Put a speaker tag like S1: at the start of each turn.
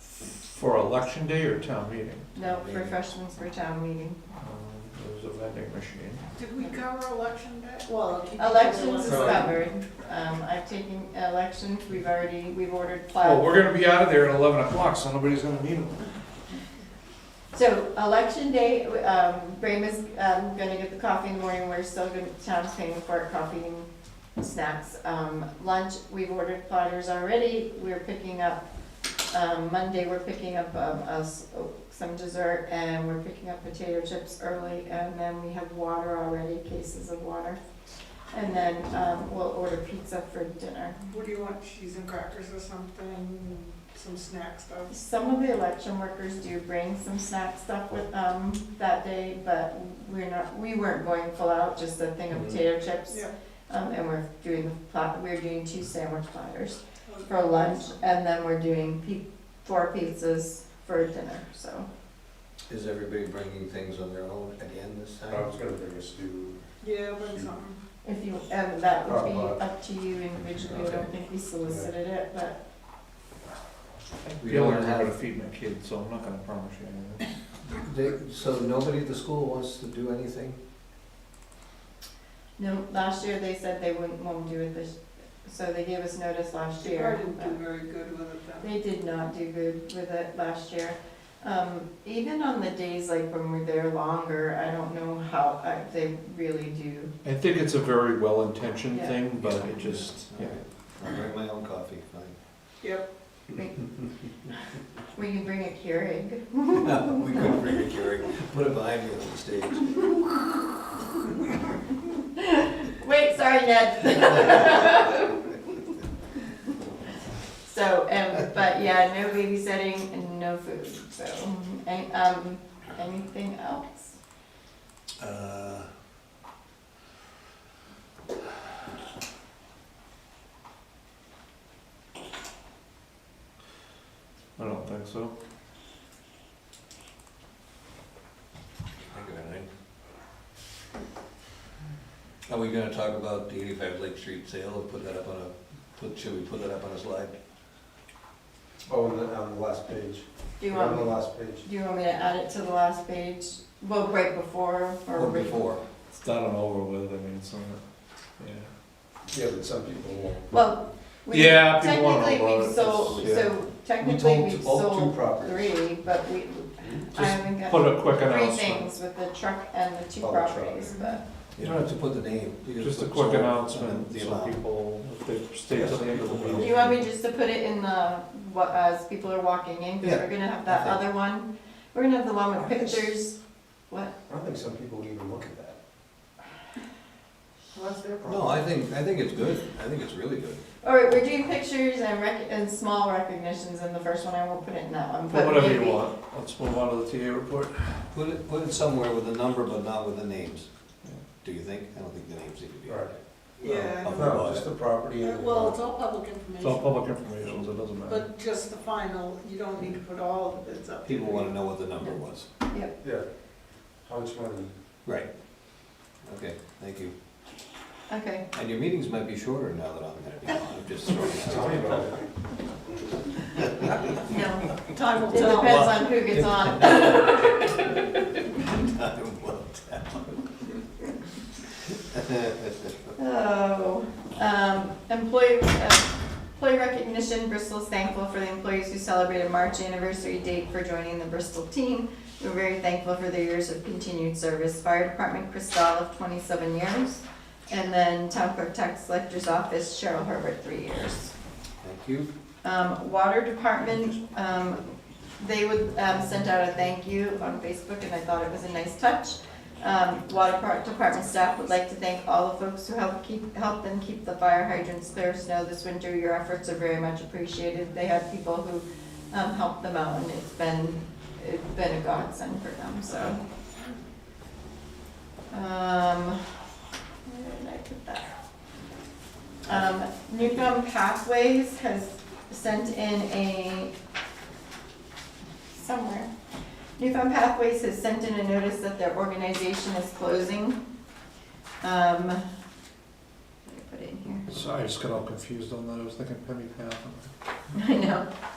S1: For election day or town meeting?
S2: No, for freshman for town meeting.
S1: Um, There's a vending machine.
S3: Did we cover election day?
S2: Well, elections is
S1: Right.
S2: covered. Um, I've taken elections, we've already, we've ordered
S1: Well,
S2: plaid.
S1: we're gonna be out of there at eleven o'clock, so nobody's gonna need them.
S2: So election day, um, Brama's, um, gonna get the coffee in the morning, we're still gonna, town's paying for our coffee and snacks. Um, lunch, we've ordered platters already, we're picking up, um, Monday, we're picking up, um, us, some dessert, and we're picking up potato chips early, and then we have water already, cases of water. And then, um, we'll order pizza for dinner.
S3: What do you want, cheese and crackers or something, some snack stuff?
S2: Some of the election workers do bring some snack stuff with them that day, but we're not, we weren't going full out, just a thing of
S1: Mhm.
S2: potato chips.
S3: Yeah.
S2: Um, and we're doing the plat, we're doing two sandwich platters for lunch, and then we're doing pi- four pizzas for dinner, so.
S4: Is everybody bringing things on their own again this time?
S5: I was gonna bring a stew.
S3: Yeah, bring something.
S2: If you, and that would be
S5: Oh, but-
S2: up to you individually, I don't think we solicited it, but
S4: We
S1: The only
S4: don't
S1: way I'm
S4: have-
S1: gonna feed my kids, so I'm not gonna promise you anything.
S4: They- So nobody at the school wants to do anything?
S2: no, last year they said they wouldn't, won't do it this, so they gave us notice last
S3: They
S2: year.
S3: probably didn't
S2: but-
S3: do very good with it then.
S2: They did not do good with it last year. Um, even on the days like when we're there longer, I don't know how, I, they really do.
S1: I think it's a very well-intentioned
S2: Yeah.
S1: thing, but it just, yeah.
S4: I'll bring my own coffee, fine.
S3: Yep,
S2: We can bring a Keurig.
S4: No, We couldn't bring a Keurig, put it behind me on the stage.
S2: Wait, sorry, Ned. So, um, but yeah, no babysitting and no food, so, and, um, anything else?
S4: Uh,
S1: I don't think so.
S4: I got it. Are we gonna talk about the eighty-five Lake Street sale and put that up on a, put, should we put that up on a slide?
S5: Oh, on the, on the last page.
S2: Do you
S5: On the
S2: want,
S5: last page.
S2: do you want me to add it to the last page? Well, right before or?
S4: Or before?
S1: It's done and over with, I mean, it's not, yeah.
S5: Yeah, but some people won't.
S2: Well, we
S1: Yeah, people wanna
S2: technically
S1: know about
S2: we've
S1: it,
S2: sold,
S1: it's- yeah.
S2: so
S5: We
S2: technically
S5: told
S2: we've
S5: two- all two
S2: sold
S5: properties.
S2: three, but we, I
S1: Just
S2: haven't
S1: Put
S2: got
S1: a quick
S2: three
S1: announcement.
S2: things with the truck and the two
S5: Oh, the truck.
S2: properties, but,
S4: You don't have to put the name. you
S1: Just a
S4: put
S1: quick
S4: sold and
S1: announcement,
S4: the
S1: so
S4: amount.
S1: people, if they stay till the end of the
S2: do
S1: meeting.
S2: you want me just to put it in the, what, as people are walking in? Cause
S4: Yeah,
S2: we're gonna have that
S4: I think.
S2: other one, we're gonna have the one with
S5: I think-
S2: pictures, what?
S5: I don't think some people would even look at that.
S3: well, that's their problem.
S4: No, I think, I think it's good. I think it's really good.
S2: Alright, we're doing pictures and rec, and small recognitions in the first one, I won't put it in that one,
S1: Well,
S2: but
S1: Whatever you
S2: maybe-
S1: want, let's move on to the TA report.
S4: Put it, put it somewhere with a number, but not with the names. Do you think? I don't think the names need to be.
S5: Right.
S3: Yeah.
S5: No, just the property.
S3: Uh,
S5: and-
S3: Well, it's all public
S1: It's all
S3: information,
S1: public information, so it doesn't matter.
S3: but just the final, you don't need to put all the bids up.
S4: People wanna know what the number was.
S5: Yeah. How much money?
S4: Right. Okay, thank you.
S2: Okay,
S4: And your meetings might be shorter now that I'm gonna be on. I'm just throwing that
S5: Tell me
S4: out.
S5: about it.
S2: no, time, it
S4: tell.
S2: depends on who gets on.
S4: Time will tell.
S2: Oh, um, employee, uh, employee recognition, Bristol's thankful for the employees who celebrated March anniversary date for joining the Bristol team. We're very thankful for their years of continued service. Fire Department, Chris Dahl of twenty-seven years. And then Town Clerk Tax Collector's Office, Cheryl Herbert, three years.
S4: Thank you.
S2: Um, water department, um, they would, um, sent out a thank you on Facebook and I thought it was a nice touch. Um, water par- department staff would like to thank all the folks who helped keep, helped them keep the fire hydrants clear of snow this winter. Your efforts are very much appreciated. They had people who, um, helped them out and it's been, it's been a godsend for them, so. Um, where did I put that? Um, Newcomb Pathways has sent in a, somewhere. Newfound Pathways has sent in a notice that their organization is closing. Um, let me put it in here.
S1: Sorry, I just got all confused on that, I was thinking Penny Path.
S2: I know.